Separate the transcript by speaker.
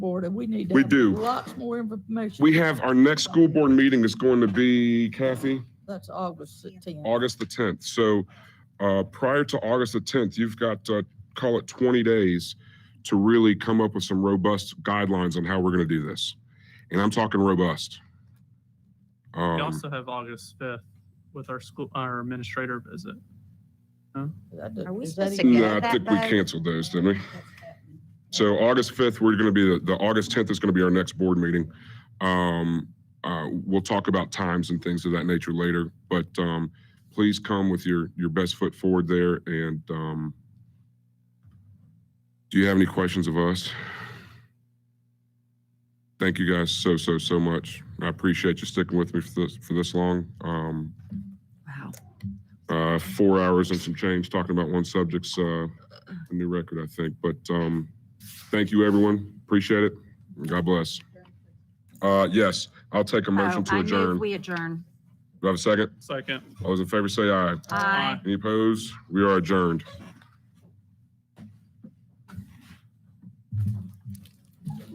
Speaker 1: board, and we need to
Speaker 2: We
Speaker 1: have
Speaker 2: do.
Speaker 1: Lots more information.
Speaker 2: We have our next school board meeting is going to be, Kathy,
Speaker 1: That's August the tenth.
Speaker 2: August the tenth. So uh, prior to August the tenth, you've got, uh, call it twenty days to really come up with some robust guidelines on how we're going to do this. And I'm talking robust.
Speaker 3: We
Speaker 2: Um,
Speaker 3: also have August fifth with our school, our administrator visit.
Speaker 4: Are we
Speaker 1: Is that
Speaker 4: supposed to
Speaker 1: even-
Speaker 4: get
Speaker 2: No, Mm, I
Speaker 4: that
Speaker 2: think we
Speaker 4: day?
Speaker 2: canceled those, didn't we? So August 5th, we're going to be, the- the August 10th is going to be our next board meeting. Um, uh, We'll talk about times and things of that nature later, but um, please come with your, your best foot forward there. And um, do you have any questions of us? Thank you guys so, so, so much. I appreciate you sticking with me for this, for this long. Um,
Speaker 4: Wow.
Speaker 2: uh, four hours and some change talking about one subject's uh, a new record, I think. But um, thank you, everyone. Appreciate it. God bless. Uh, yes, I'll take a motion
Speaker 4: Oh,
Speaker 2: to
Speaker 4: I move
Speaker 2: adjourn. Do
Speaker 4: We adjourn.
Speaker 2: I have a second?
Speaker 3: Second.
Speaker 2: All those in favor say aye.
Speaker 4: Aye.
Speaker 2: Any opposed? We are adjourned.